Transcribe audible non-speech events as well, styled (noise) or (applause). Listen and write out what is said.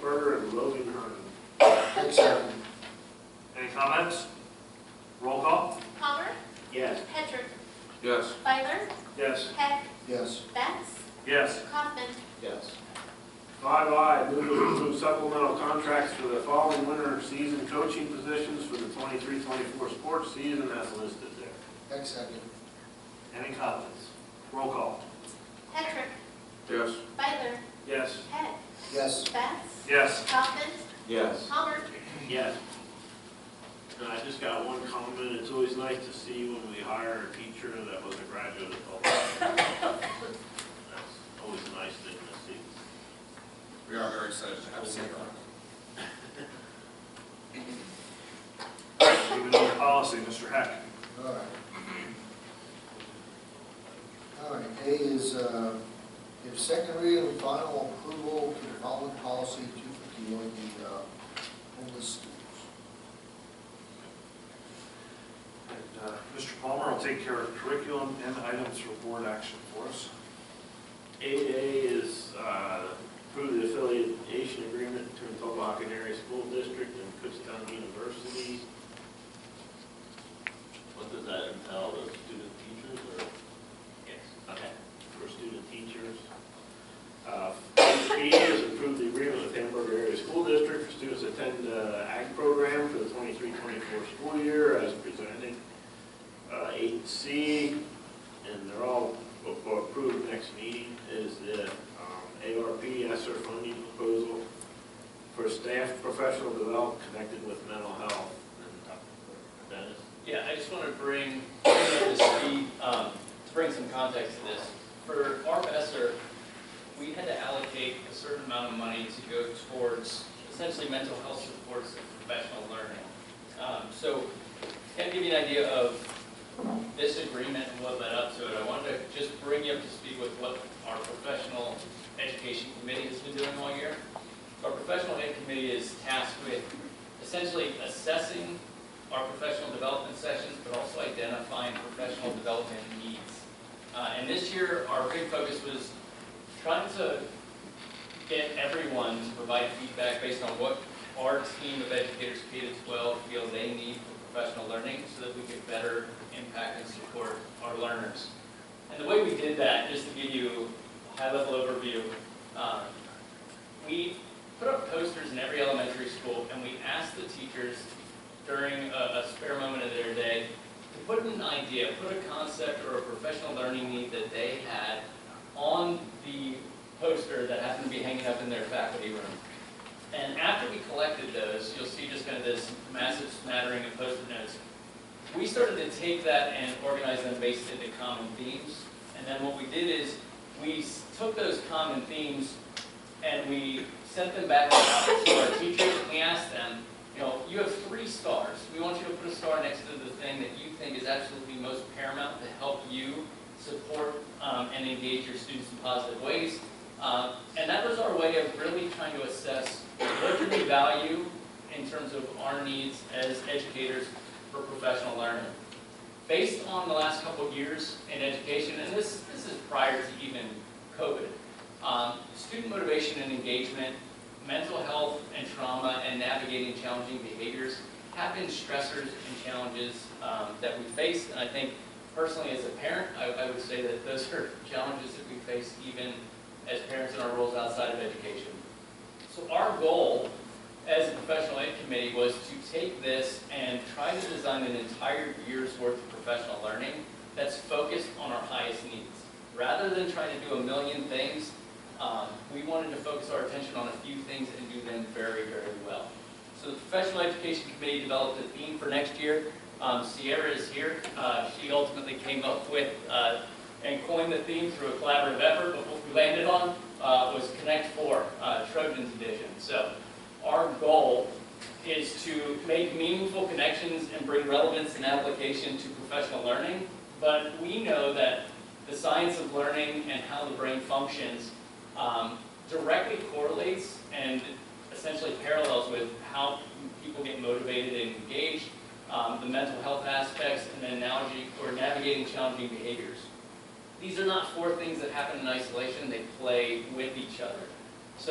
Carter and Logan Hearn. Any comments? Roll call? Palmer, Yes. Hedrick, Yes. Feiler, Yes. Heck, Yes. Betts, Yes. Kaufman. Yes. Five I, move to approve supplemental contracts for the following winter season coaching positions for the 23-24 sports season as listed there. Heck second. Any comments? Roll call? Hedrick, Yes. Feiler, Yes. Heck, Yes. Betts, Yes. Kaufman, Yes. Palmer. Yes. And I just got one comment, it's always nice to see when we hire a teacher that was a graduate of Tulsa. That's always a nice thing to see. We are very excited to have Sarah. Moving on to policy, Mr. Heck. All right. All right, A is, uh, give second reading and final approval to the following policy, two fifty-one, the, uh, homeless students. And uh, Mr. Palmer will take care of curriculum and items for board action for us. Eight A is uh, approve the affiliation agreement between Tobacan Area School District and Kutztown University. What does that entail, the student teachers or? Yes. Okay, for student teachers. Uh, B is approve the agreement with Hamburg Area School District for students to attend the ag program for the 23-24 school year as presented. Uh, Eight C, and they're all for approved next meeting, is the um, ARP ESER funding proposal for staff professional development connected with mental health. And Dr. Dennis? Yeah, I just want to bring, bring up to speed, um, to bring some context to this. For ARP ESER, we had to allocate a certain amount of money to go towards essentially mental health supports and professional learning. Um, so, to kind of give you an idea of this agreement and what led up to it, I wanted to just bring you up to speed with what our professional education committee has been doing all year. Our professional ed committee is tasked with essentially assessing our professional development sessions, but also identifying professional development needs. Uh, and this year, our big focus was trying to get everyone to provide feedback based on what our team of educators K to 12 feel they need for professional learning so that we could better impact and support our learners. And the way we did that, just to give you a high-level overview, um, we put up posters in every elementary school and we asked the teachers during a, a spare moment of their day to put an idea, put a concept or a professional learning need that they had on the poster that happened to be hanging up in their faculty room. And after we collected those, you'll see just kind of this massive smattering of post-it notes. We started to take that and organize them based into common themes. And then what we did is we s- took those common themes and we sent them back out to our teachers and we asked them, you know, you have three stars. We want you to put a star next to the thing that you think is absolutely most paramount to help you support um, and engage your students in positive ways. Uh, and that was our way of really trying to assess what do we value in terms of our needs as educators for professional learning. Based on the last couple of years in education, and this, this is prior to even COVID, um, student motivation and engagement, mental health and trauma, and navigating challenging behaviors have been stressors and challenges um, that we face. And I think personally, as a parent, I, I would say that those (laughs) are challenges that we face even as parents in our roles outside of education. So our goal as a professional ed committee was to take this and try to design an entire year's worth of professional learning that's focused on our highest needs. Rather than trying to do a million things, um, we wanted to focus our attention on a few things and do them very, very well. So the Professional Education Committee developed a theme for next year. Um, Sierra is here. Uh, She ultimately came up with uh, and coined the theme through a collaborative effort, but what we landed on uh, was Connect Four, uh, Trojan's Edition. So our goal is to make meaningful connections and bring relevance and application to professional learning. But we know that the science of learning and how the brain functions um, directly correlates and essentially parallels with how people get motivated and engaged, um, the mental health aspects, and then analogy or navigating challenging behaviors. These are not four things that happen in isolation, they play with each other.